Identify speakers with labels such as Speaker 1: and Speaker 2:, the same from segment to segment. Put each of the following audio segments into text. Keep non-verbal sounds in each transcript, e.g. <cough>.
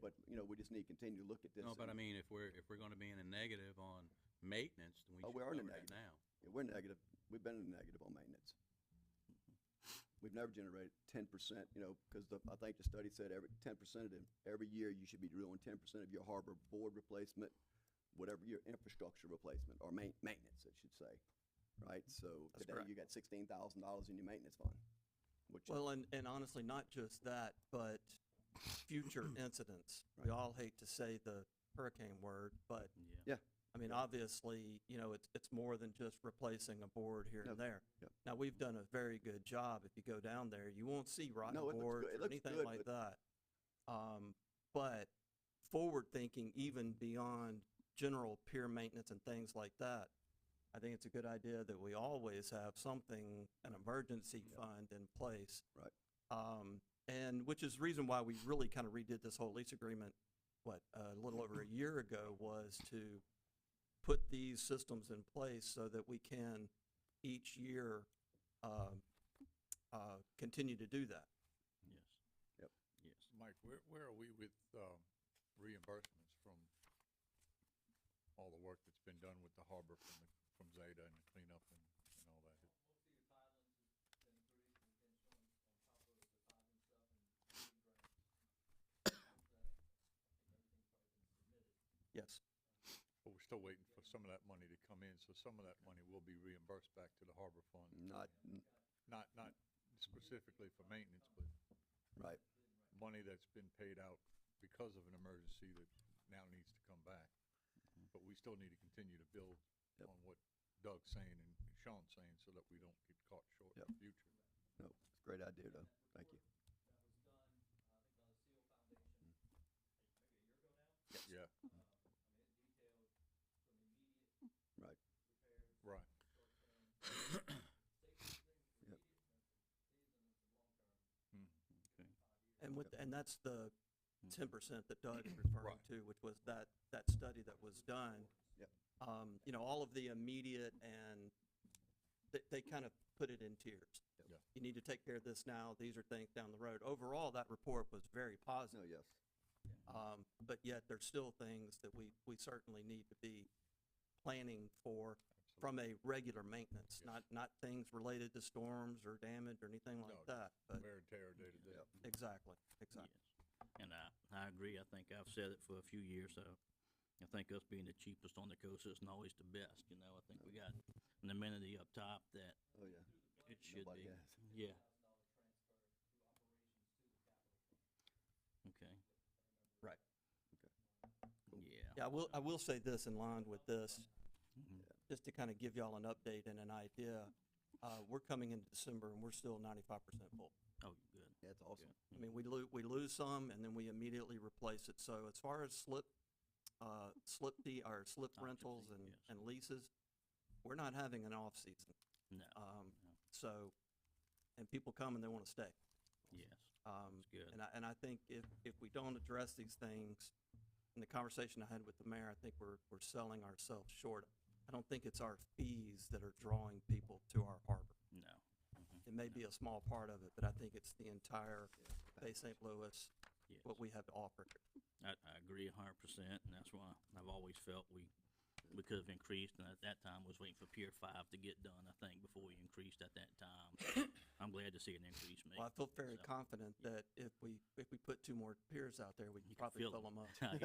Speaker 1: But, you know, we just need to continue to look at this.
Speaker 2: No, but I
Speaker 1: and-
Speaker 2: mean, if we're, if we're gonna be in a negative on maintenance, then we
Speaker 1: Oh,
Speaker 2: should
Speaker 1: we are
Speaker 2: cover
Speaker 1: in the
Speaker 2: that
Speaker 1: negative.
Speaker 2: now.
Speaker 1: yeah, We're negative, we've been in the negative on maintenance. We've never generated ten percent, you know, because the, I think the study said every, ten percent of them, every year you should be doing ten percent of your harbor board replacement, whatever your infrastructure replacement, or main, maintenance, I should say, right? So
Speaker 3: That's
Speaker 1: today
Speaker 3: correct.
Speaker 1: you got sixteen thousand dollars in your maintenance fund, which,
Speaker 3: Well, and, and honestly, not just that, but future incidents. We
Speaker 1: Right.
Speaker 3: all hate to say the hurricane word, but
Speaker 1: Yeah.
Speaker 3: I mean, obviously, you know, it's, it's more than just replacing a board here
Speaker 1: No,
Speaker 3: and there.
Speaker 1: yep.
Speaker 3: Now, we've done a very good job. If you go down there, you won't see rotten
Speaker 1: No, it looks
Speaker 3: boards
Speaker 1: good- it
Speaker 3: or
Speaker 1: looks
Speaker 3: anything
Speaker 1: good,
Speaker 3: like that. Um, but forward thinking, even beyond general peer maintenance and things like that, I think it's a good idea that we always have something, an emergency fund in place.
Speaker 1: Right.
Speaker 3: Um, and which is the reason why we really kind of redid this whole lease agreement, what, a little over a year ago was to put these systems in place so that we can each year, um, uh, continue to do that.
Speaker 2: Yes.
Speaker 1: Yep.
Speaker 2: Yes.
Speaker 4: Mike, where, where are we with, um, reimbursements from all the work that's been done with the harbor from the, from Zeta and the cleanup and, and all that?
Speaker 3: Yes.
Speaker 4: But we're still waiting for some of that money to come in, so some of that money will be reimbursed back to the harbor fund.
Speaker 1: not,
Speaker 4: Not, not specifically for maintenance, but
Speaker 1: right.
Speaker 4: money that's been paid out because of an emergency that now needs to come back. But we still need to continue to build
Speaker 1: Mm-hmm. Yep.
Speaker 4: on what Doug's saying and Sean's saying so that we don't get caught short in the future.
Speaker 1: No, it's a great idea though. Thank you.
Speaker 4: Yeah,
Speaker 1: Right.
Speaker 4: right.
Speaker 3: And with, and that's the ten percent that Doug is referring
Speaker 4: Right.
Speaker 3: to, which was that, that study that was done.
Speaker 1: Yep.
Speaker 3: Um, you know, all of the immediate and they, they kind of put it in tiers.
Speaker 1: Yep.
Speaker 4: Yeah.
Speaker 3: You need to take care of this now. These are things down the road. Overall, that report was very
Speaker 1: No,
Speaker 3: positive.
Speaker 1: yes.
Speaker 3: Um, but yet there's still things that we, we certainly need to be planning for from a regular maintenance,
Speaker 4: Yes.
Speaker 3: not, not things related to storms or damage or anything
Speaker 4: No,
Speaker 3: like that, but
Speaker 4: Wear and tear day to day.
Speaker 1: Yep.
Speaker 3: exactly, exactly.
Speaker 5: Yes. And I, I agree. I think I've said it for a few years, so I think us being the cheapest on the coast isn't always the best, you know. I think we got an amenity up top that
Speaker 1: Oh, yeah.
Speaker 5: it should
Speaker 1: Nobody
Speaker 5: be.
Speaker 1: has.
Speaker 5: Yeah. Okay.
Speaker 3: Right.
Speaker 1: Cool.
Speaker 5: Yeah.
Speaker 3: Yeah, I will, I will say this in line with this,
Speaker 5: Mhm.
Speaker 3: just to kind of give y'all an update and an idea. Uh, we're coming into December and we're still ninety-five percent full.
Speaker 5: Oh, good.
Speaker 1: That's awesome.
Speaker 3: I mean, we lose, we lose some and then we immediately replace it. So as far as slip, uh, slip the, or slip
Speaker 5: Occupancy,
Speaker 3: rentals and,
Speaker 5: yes.
Speaker 3: and leases, we're not having an off-season.
Speaker 5: No.
Speaker 3: Um,
Speaker 5: No.
Speaker 3: so, and people come and they want to stay.
Speaker 5: Yes.
Speaker 3: Um,
Speaker 5: That's good.
Speaker 3: and I, and I think if, if we don't address these things, in the conversation I had with the mayor, I think we're, we're selling ourselves short. I don't think it's our fees that are drawing people to our harbor.
Speaker 5: No. Mhm.
Speaker 3: It may be a small part of it, but I think it's the entire Bay St. Louis,
Speaker 5: Yes.
Speaker 3: what we have to offer.
Speaker 5: I, I agree a hundred percent, and that's why I've always felt we, we could have increased, and at that time was waiting for Pier Five to get done, I think, before we increased at that time. <coughs> So I'm glad to see an increase made.
Speaker 3: Well,
Speaker 5: <laughs>
Speaker 3: I feel very
Speaker 5: so-
Speaker 3: confident that if we, if we put two more piers out there, we can
Speaker 5: You can
Speaker 3: probably
Speaker 5: fill
Speaker 3: fill
Speaker 5: 'em.
Speaker 3: them up.
Speaker 5: <laughs>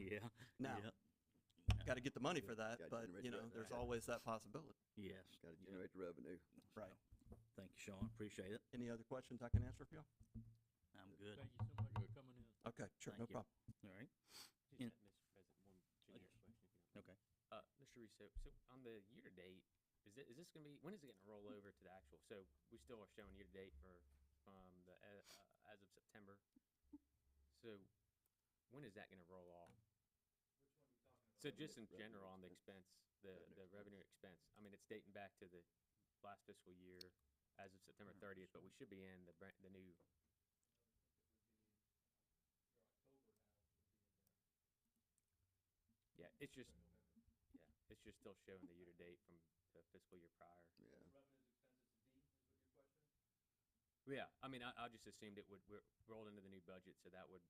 Speaker 5: Yeah, yeah, <laughs> yeah.
Speaker 3: <laughs>
Speaker 5: Uh,
Speaker 3: Now,
Speaker 5: Yep.
Speaker 3: gotta get the money for that,
Speaker 1: Gotta
Speaker 3: but,
Speaker 1: generate
Speaker 3: you
Speaker 1: that <laughs>
Speaker 3: know, there's
Speaker 1: revenue.
Speaker 3: always that possibility.
Speaker 5: Yes.
Speaker 1: Got to
Speaker 5: yep.
Speaker 1: generate the revenue.
Speaker 3: Right.
Speaker 5: Thank you, Sean, appreciate it,
Speaker 3: Any other questions I can answer for y'all?
Speaker 5: I'm good,
Speaker 6: Thank you so much for coming in.
Speaker 3: Okay, sure,
Speaker 5: Thank
Speaker 3: no
Speaker 5: you.
Speaker 3: problem.
Speaker 5: alright,
Speaker 6: Just,
Speaker 5: In-
Speaker 6: uh, Mr. President, one
Speaker 5: yes.
Speaker 6: generic question. if you don't
Speaker 5: Okay.
Speaker 6: mind. Uh, Mr. Russo, so on the year-to-date, is it, is this gonna be, when is it gonna roll over to the actual? So we still are showing year-to-date for, um, the, uh, uh, as of September. So when is that gonna roll off? So just in
Speaker 1: Revenue
Speaker 6: general, on the expense, the,
Speaker 1: Revenue
Speaker 6: the revenue expense, I mean, it's dating back to the last fiscal year as of September thirtieth, but we should be in the brand, the new. Yeah, it's just, yeah, it's just still showing the year-to-date from the fiscal year prior.
Speaker 1: Yeah.
Speaker 6: Yeah, I mean, I, I just assumed it would, we're rolled into the new budget, so that would